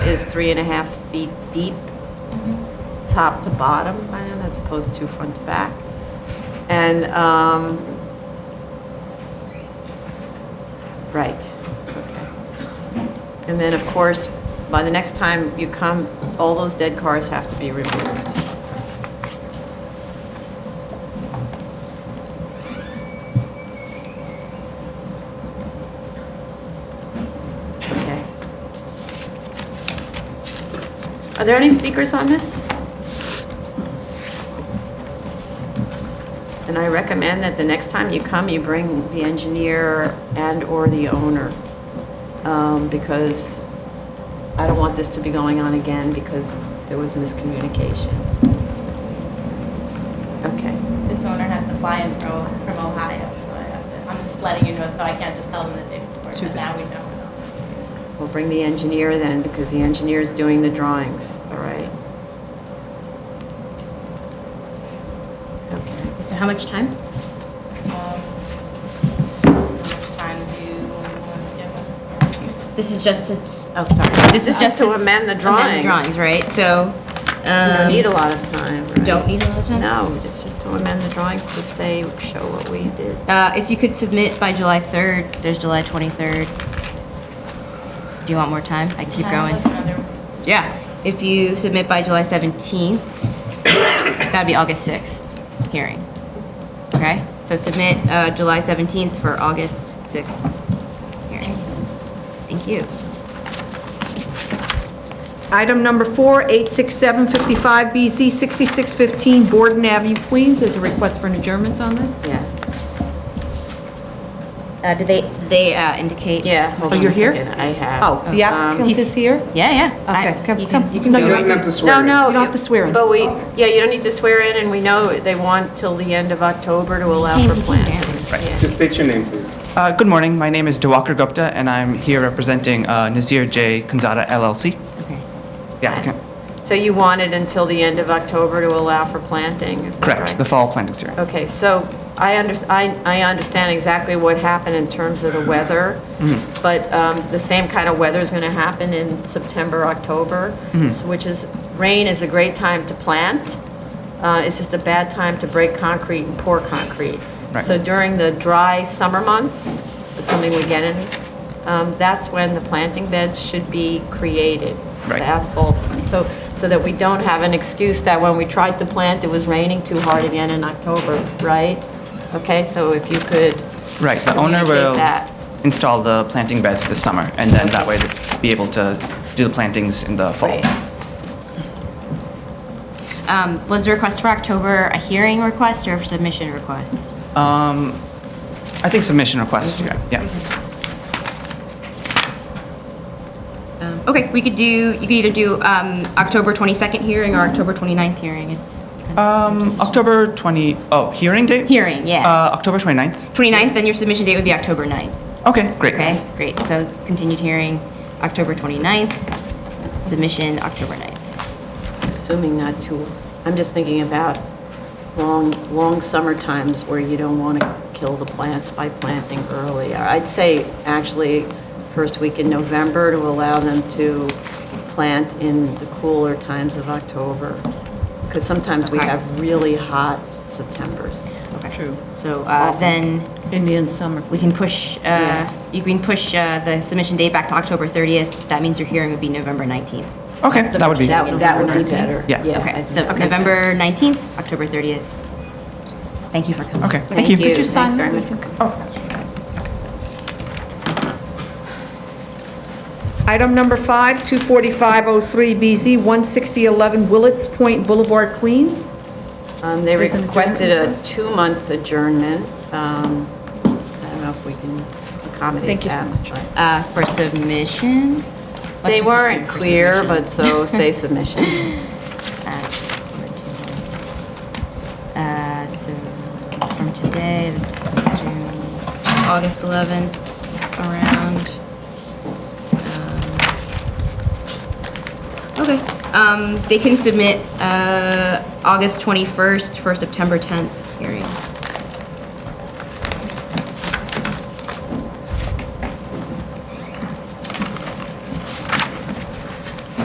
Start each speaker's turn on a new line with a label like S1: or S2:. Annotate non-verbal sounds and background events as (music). S1: is three and a half feet deep, top to bottom, I am, as opposed to front to back. And, um, right, okay. And then, of course, by the next time you come, all those dead cars have to be removed. Okay. Are there any speakers on this? And I recommend that the next time you come, you bring the engineer and/or the owner, um, because I don't want this to be going on again because there was miscommunication. Okay.
S2: This owner has to fly in from, from Ohio, so I have to, I'm just letting you know, so I can't just tell them the day before,
S1: Too
S2: but now we know.
S1: We'll bring the engineer then, because the engineer's doing the drawings, all right? Okay.
S3: So how much time?
S2: Um, How much time do you want to give us?
S3: This is just to, s- oh, sorry. This is
S1: Just
S3: just
S1: to
S3: s-
S1: amend the drawings.
S3: Amend the drawings, right? So,
S1: We don't need
S3: um,
S1: a lot of time, right?
S3: don't need a lot of time?
S1: No, it's just to amend the drawings to say, show what we did.
S3: uh, if you could submit by July 3rd, there's July 23rd. Do you want more time? I can keep
S2: Time,
S3: going.
S2: another-
S3: Yeah. If you submit by July 17th, that'd be August 6th hearing. Okay? So submit, uh, July 17th for August 6th hearing. Thank you.
S4: Item number four, 86755BZ, 6615 Borden Avenue, Queens. There's a request for an adjournment on this.
S1: Yeah,
S3: Uh, do they, they, uh, indicate?
S1: yeah, hold
S4: Oh,
S1: on
S4: you're
S1: a
S4: here?
S1: second, I have.
S4: Oh, the
S1: Um,
S4: applicant is here?
S3: Yeah, yeah. I-
S4: Okay, come,
S3: you
S4: come.
S3: can-
S4: No,
S5: He
S4: you're
S5: doesn't
S4: right.
S5: have to swear.
S1: No, no.
S4: You don't have to swear in.
S1: But we, yeah, you don't need to swear in, and we know they want till the end of October to allow
S3: Came
S1: for
S3: to
S1: planting.
S5: Just state your name, please.
S6: Uh, Good morning. My name is Diwakar Gupta, and I'm here representing uh, Nazir J. Kanzada LLC,
S3: Okay.
S6: the applicant.
S1: So you wanted until the end of October to allow for planting, is that
S6: Correct,
S1: right?
S6: the fall planting series.
S1: Okay, so I under, I, I understand exactly what happened in terms of the weather, but um, the same kind of weather is going to happen in September, October, s- which is, rain is a great time to plant. Uh, It's just a bad time to break concrete and pour concrete.
S6: Right.
S1: So during the dry summer months, assuming we get any, um, that's when the planting beds should be created.
S6: Right.
S1: The asphalt, so, so that we don't have an excuse that when we tried to plant, it was raining too hard again in October, right? Okay, so if you could.
S6: Right, the owner
S1: communicate
S6: will
S1: that.
S6: install the planting beds this summer, and then that way they'll be able to do the plantings in the fall.
S1: Right.
S3: Um, was the request for October a hearing request or a submission request?
S6: I think submission request, yeah, yeah.
S3: Um, okay, we could do, you could either do, um, October 22nd hearing or October 29th hearing. It's kind of-
S6: Um, October 20, oh, hearing date?
S3: Hearing,
S6: Uh,
S3: yeah.
S6: October 29th?
S3: 29th, then your submission date would be October 9th.
S6: Okay, great.
S3: Okay, great. So continued hearing, October 29th, submission, October 9th.
S1: Assuming not too, I'm just thinking about long, long summer times where you don't want to kill the plants by planting early. I'd say actually first week in November to allow them to plant in the cooler times of October. Because sometimes we
S3: Okay.
S1: have really hot Septembers.
S3: True. So, uh, then
S4: Indian summer.
S3: we can push, uh, you can push, uh, the submission date back to October 30th. That means your hearing would be November 19th.
S6: Okay, that would be,
S1: That would, that would be better.
S6: Yeah.
S1: I
S3: Okay, Uh, so
S1: think-
S3: November 19th, October 30th. Thank you for coming.
S6: okay, thank you.
S4: Could you sign
S1: Thanks
S4: that?
S1: very
S4: You
S1: much.
S4: can come.
S6: Oh,
S4: Item number five, 24503BZ, 16011 Willits Point Boulevard, Queens.
S1: Um, They
S4: There's an
S1: requested
S4: adjournment
S1: a
S4: request?
S1: two-month adjournment. Um, I don't know if we can accommodate that.
S4: Thank you so much.
S1: but-
S3: Uh, for submission? Let's
S1: They
S3: just assume
S1: weren't
S3: for
S1: clear,
S3: submission.
S1: but so
S4: (laughs)
S1: say submission.
S3: Uh, for two months. Uh, so from today, that's June, August 11th, around. um, Okay, um, they can submit, uh, August 21st for September 10th hearing.